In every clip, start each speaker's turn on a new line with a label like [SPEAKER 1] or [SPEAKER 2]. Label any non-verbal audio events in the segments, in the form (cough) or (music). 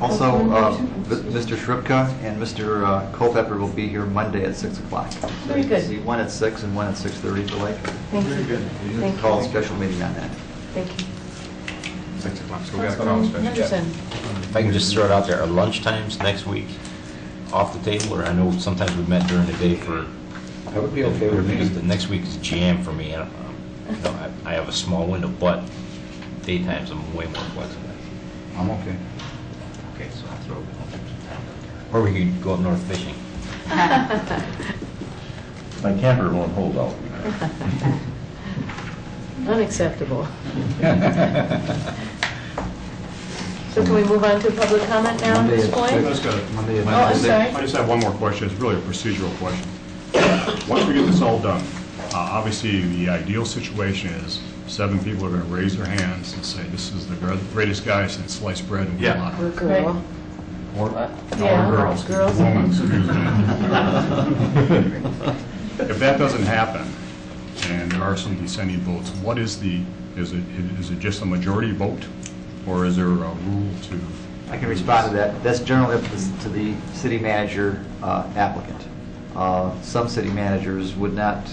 [SPEAKER 1] Also,
[SPEAKER 2] Open
[SPEAKER 1] uh,
[SPEAKER 2] motion.
[SPEAKER 1] M- Mr. Shripka and Mr. uh, Culpepper will be here Monday at 6 o'clock.
[SPEAKER 2] Very good.
[SPEAKER 1] So you can see one at 6 and one at 6:30 for Lake.
[SPEAKER 2] Thank you.
[SPEAKER 1] You
[SPEAKER 2] Thank
[SPEAKER 1] can
[SPEAKER 2] you.
[SPEAKER 1] call a special meeting on that.
[SPEAKER 2] Thank you.
[SPEAKER 3] Six o'clock, so we got a call
[SPEAKER 2] Councilman
[SPEAKER 3] special.
[SPEAKER 2] Henderson.
[SPEAKER 4] If I can just throw it out there, are lunchtimes next week off the table, or I know sometimes we met during the day for.
[SPEAKER 5] That would be okay with me.
[SPEAKER 4] Because The next week is jam for me, and, um, you know, I, I have a small window, but daytimes I'm way more flexible.
[SPEAKER 5] I'm okay.
[SPEAKER 4] Okay, so I'll throw it. Or we could go up north fishing.
[SPEAKER 6] My camper won't hold out.
[SPEAKER 2] Unacceptable. So can we move on to public comment now at this
[SPEAKER 1] Monday at
[SPEAKER 2] point?
[SPEAKER 3] Let's go.
[SPEAKER 1] Monday at
[SPEAKER 2] Oh, I'm sorry.
[SPEAKER 3] I just have one more question, it's really a procedural question. Once we get this all done, uh, obviously, the ideal situation is seven people are going to raise their hands and say, this is the gr- greatest guy since sliced bread and
[SPEAKER 6] Yeah.
[SPEAKER 3] gelato.
[SPEAKER 2] We're girl.
[SPEAKER 3] Or
[SPEAKER 2] Yeah,
[SPEAKER 3] or girls,
[SPEAKER 2] girls.
[SPEAKER 3] women, excuse me. If that (laughs) doesn't happen, and there are some dissenting votes, what is the, is it, is it just a majority vote? Or is there a rule to?
[SPEAKER 1] I can respond to that. That's generally up to the- to the city manager uh, applicant. Uh, Some city managers would not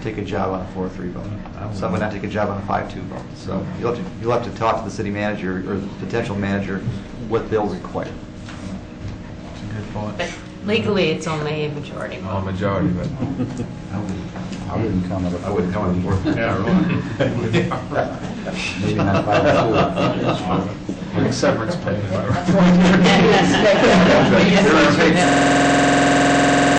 [SPEAKER 1] take a job on a 4-3 vote. Some would not take a job on a 5-2 vote. So you'll have to, you'll have to talk to the city manager or the potential manager what they'll require.
[SPEAKER 7] But legally, it's only a majority vote.
[SPEAKER 5] majority, but. I wouldn't come at a.
[SPEAKER 1] I wouldn't come at a four.
[SPEAKER 3] Yeah, really?
[SPEAKER 5] (laughs) Maybe not five
[SPEAKER 1] (laughs)
[SPEAKER 5] or two.
[SPEAKER 3] Severance pay.
[SPEAKER 2] Yes.
[SPEAKER 5] There are
[SPEAKER 7] Yes.